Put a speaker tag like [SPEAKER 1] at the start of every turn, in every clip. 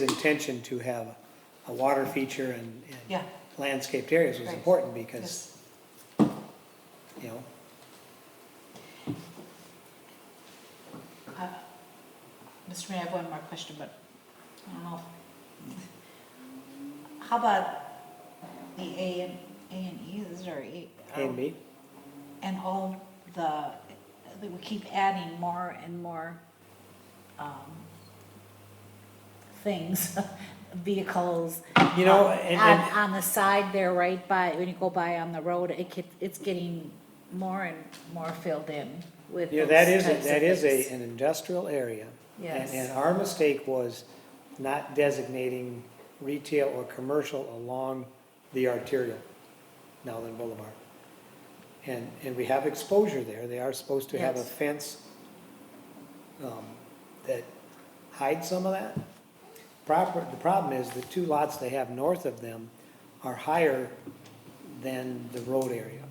[SPEAKER 1] His intention to have a water feature and and
[SPEAKER 2] Yeah.
[SPEAKER 1] landscaped areas was
[SPEAKER 2] Right.
[SPEAKER 1] important because, you know,
[SPEAKER 2] Uh, Mr. Mayor, I have one more question, but I don't know. if- How about the A and, A and E, E's or A?
[SPEAKER 1] A and B.
[SPEAKER 2] um, And all the, that we keep adding more and more, um, things, vehicles.
[SPEAKER 1] You know,
[SPEAKER 2] uh,
[SPEAKER 1] and-
[SPEAKER 2] On,
[SPEAKER 1] and-
[SPEAKER 2] on the side there, right by, when you go by on the road, it get, it's getting more and more filled in with
[SPEAKER 1] You know, that
[SPEAKER 2] those
[SPEAKER 1] is, a-
[SPEAKER 2] types of
[SPEAKER 1] that is a,
[SPEAKER 2] things.
[SPEAKER 1] an industrial area. And-
[SPEAKER 2] Yes.
[SPEAKER 1] And our mistake was not designating retail or commercial along the arterial, Nowland Boulevard. And, and we have exposure there. They are supposed to have a
[SPEAKER 2] Yes.
[SPEAKER 1] fence um, that hides some of that. Proper, the problem is the two lots they have north of them are higher than the road area.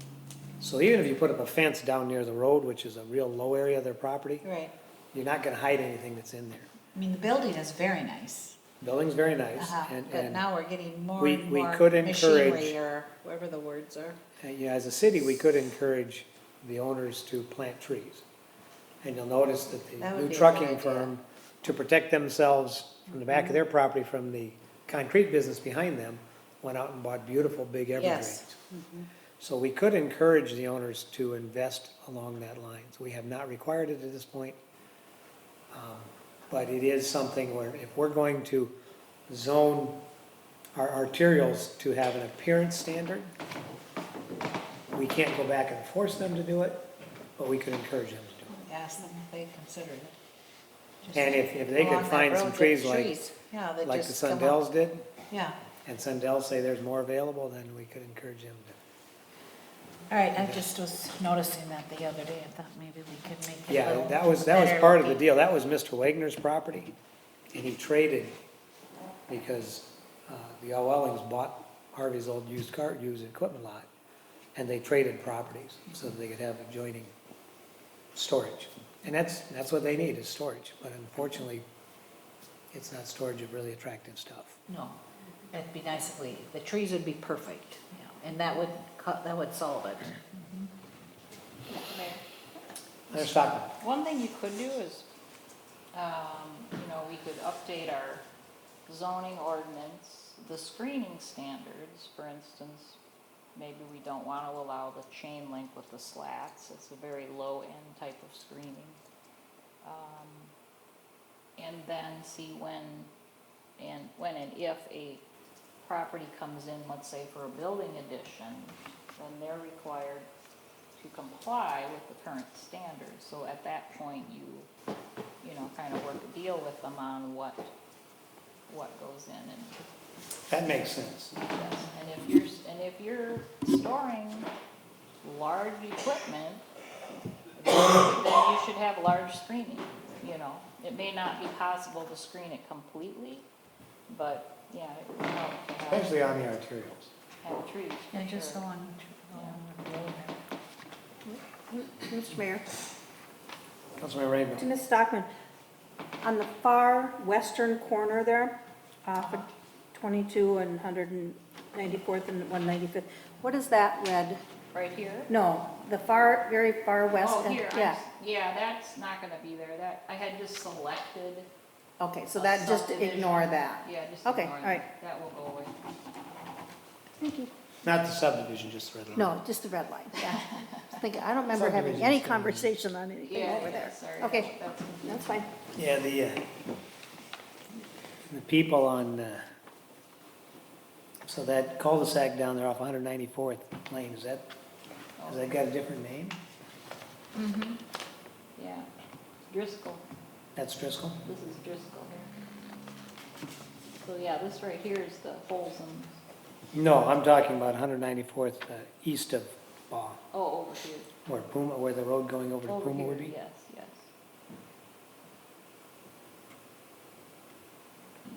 [SPEAKER 1] So even if you put up a fence down near the road, which is a real low area of their property,
[SPEAKER 2] Right.
[SPEAKER 1] you're not gonna hide anything that's in there.
[SPEAKER 2] I mean, the building is very nice,
[SPEAKER 1] Building's very nice,
[SPEAKER 2] Uh-huh.
[SPEAKER 1] and,
[SPEAKER 2] but
[SPEAKER 1] and,
[SPEAKER 2] now we're getting more
[SPEAKER 1] we-
[SPEAKER 2] and
[SPEAKER 1] we
[SPEAKER 2] more
[SPEAKER 1] could encourage-
[SPEAKER 2] machinery or whatever the words are.
[SPEAKER 1] and, you know, as a city, we could encourage the owners to plant trees. And you'll notice that
[SPEAKER 2] That
[SPEAKER 1] the
[SPEAKER 2] would
[SPEAKER 1] new
[SPEAKER 2] be a
[SPEAKER 1] trucking
[SPEAKER 2] good idea. Mm-hmm.
[SPEAKER 1] firm, to protect themselves from the back of their property from the concrete business behind them, went out and bought beautiful big evergreens.
[SPEAKER 2] Yes. Mm-hmm.
[SPEAKER 1] So we could encourage the owners to invest along that line. So we have not required it at this point. Um, But it is something where if we're going to zone our arterials to have an appearance standard, we can't go back and force them to do it, but we could encourage them to do it.
[SPEAKER 2] Ask them if they consider it. Just
[SPEAKER 1] And if, if they could
[SPEAKER 2] along that
[SPEAKER 1] find some
[SPEAKER 2] road,
[SPEAKER 1] trees
[SPEAKER 2] get
[SPEAKER 1] like,
[SPEAKER 2] trees. Yeah, they
[SPEAKER 1] like the
[SPEAKER 2] just come up.
[SPEAKER 1] Sundells did,
[SPEAKER 2] Yeah,
[SPEAKER 1] and Sundells say there's more available, then we could encourage them to.
[SPEAKER 2] all right, I just was noticing that the other day, I thought maybe we could make it a
[SPEAKER 1] Yeah,
[SPEAKER 2] little
[SPEAKER 1] that was, that was
[SPEAKER 2] better
[SPEAKER 1] part of the
[SPEAKER 2] looking.
[SPEAKER 1] deal. That was Mr. Wagner's property, and he traded because uh, the Owellings bought Harvey's old used car, used equipment lot, and they traded properties so that they could have adjoining storage. And that's, that's what they need, is storage. But unfortunately, it's not storage of really attractive stuff.
[SPEAKER 2] No, it'd be nice if we, the trees would be perfect, yeah, and that would, co- that would solve it.
[SPEAKER 3] Mayor,
[SPEAKER 1] Mayor Stockman?
[SPEAKER 3] One thing you could do is, um, you know, we could update our zoning ordinance, the screening standards, for instance, maybe we don't want to allow the chain link with the slats, it's a very low-end type of screening. Um, And then see when, and when and if a property comes in, let's say for a building addition, then they're required to comply with the current standards. So at that point, you, you know, kind of work a deal with them on what, what goes in and
[SPEAKER 1] That makes sense.
[SPEAKER 3] Yes, and if you're, and if you're storing large equipment, then then you should have large screening, you know? It may not be possible to screen it completely, but, yeah, it would help to have,
[SPEAKER 1] Especially on the arterials.
[SPEAKER 3] have trees, for
[SPEAKER 2] Yeah, just
[SPEAKER 3] sure.
[SPEAKER 2] along, along the road.
[SPEAKER 4] Mr. Mayor,
[SPEAKER 1] Councilmember Rainville?
[SPEAKER 4] to Ms. Stockman, on the far western corner there, off of 22 and 194th and 195th, what is that red?
[SPEAKER 3] Right here?
[SPEAKER 4] No, the far, very far west.
[SPEAKER 3] Oh,
[SPEAKER 4] end-
[SPEAKER 3] here, I'm
[SPEAKER 4] Yeah,
[SPEAKER 3] s- yeah, that's not gonna be there, that, I had just selected,
[SPEAKER 4] okay, so
[SPEAKER 3] a
[SPEAKER 4] that, just
[SPEAKER 3] subdivision.
[SPEAKER 4] ignore that.
[SPEAKER 3] yeah, just
[SPEAKER 4] Okay,
[SPEAKER 3] ignore
[SPEAKER 4] all
[SPEAKER 3] that,
[SPEAKER 4] right.
[SPEAKER 3] that will go away.
[SPEAKER 1] Not the subdivision, just the red line.
[SPEAKER 4] No, just the red line, yeah. Just thinking, I don't remember having any
[SPEAKER 1] Subdivision's fine.
[SPEAKER 4] conversation on anything
[SPEAKER 3] Yeah,
[SPEAKER 4] over
[SPEAKER 3] yeah,
[SPEAKER 4] there.
[SPEAKER 3] sorry.
[SPEAKER 4] Okay,
[SPEAKER 3] that's-
[SPEAKER 4] that's fine.
[SPEAKER 1] Yeah, the, uh, the people on, uh, so that cul-de-sac down there off 194th Lane, is that,
[SPEAKER 3] Oh.
[SPEAKER 1] has that got a different name?
[SPEAKER 2] Mm-hmm.
[SPEAKER 3] Yeah, Driscoll.
[SPEAKER 1] That's Driscoll?
[SPEAKER 3] This is Driscoll here. So yeah, this right here is the Folsom,
[SPEAKER 1] No, I'm talking about 194th uh, east of Baugh,
[SPEAKER 3] oh, over here.
[SPEAKER 1] where Puma, where the road going over to
[SPEAKER 3] Over
[SPEAKER 1] Puma would
[SPEAKER 3] here,
[SPEAKER 1] be.
[SPEAKER 3] yes, yes.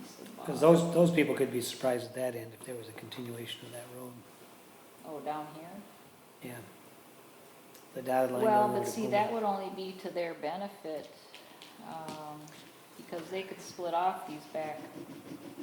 [SPEAKER 3] East of
[SPEAKER 1] Because
[SPEAKER 3] Bob.
[SPEAKER 1] those, those people could be surprised at that end if there was a continuation of that road.
[SPEAKER 3] Oh, down here?
[SPEAKER 1] Yeah. The dotted line
[SPEAKER 3] Well,
[SPEAKER 1] going over
[SPEAKER 3] but
[SPEAKER 1] to
[SPEAKER 3] see,
[SPEAKER 1] Puma.
[SPEAKER 3] that would only be to their benefit, um, because they could split off these back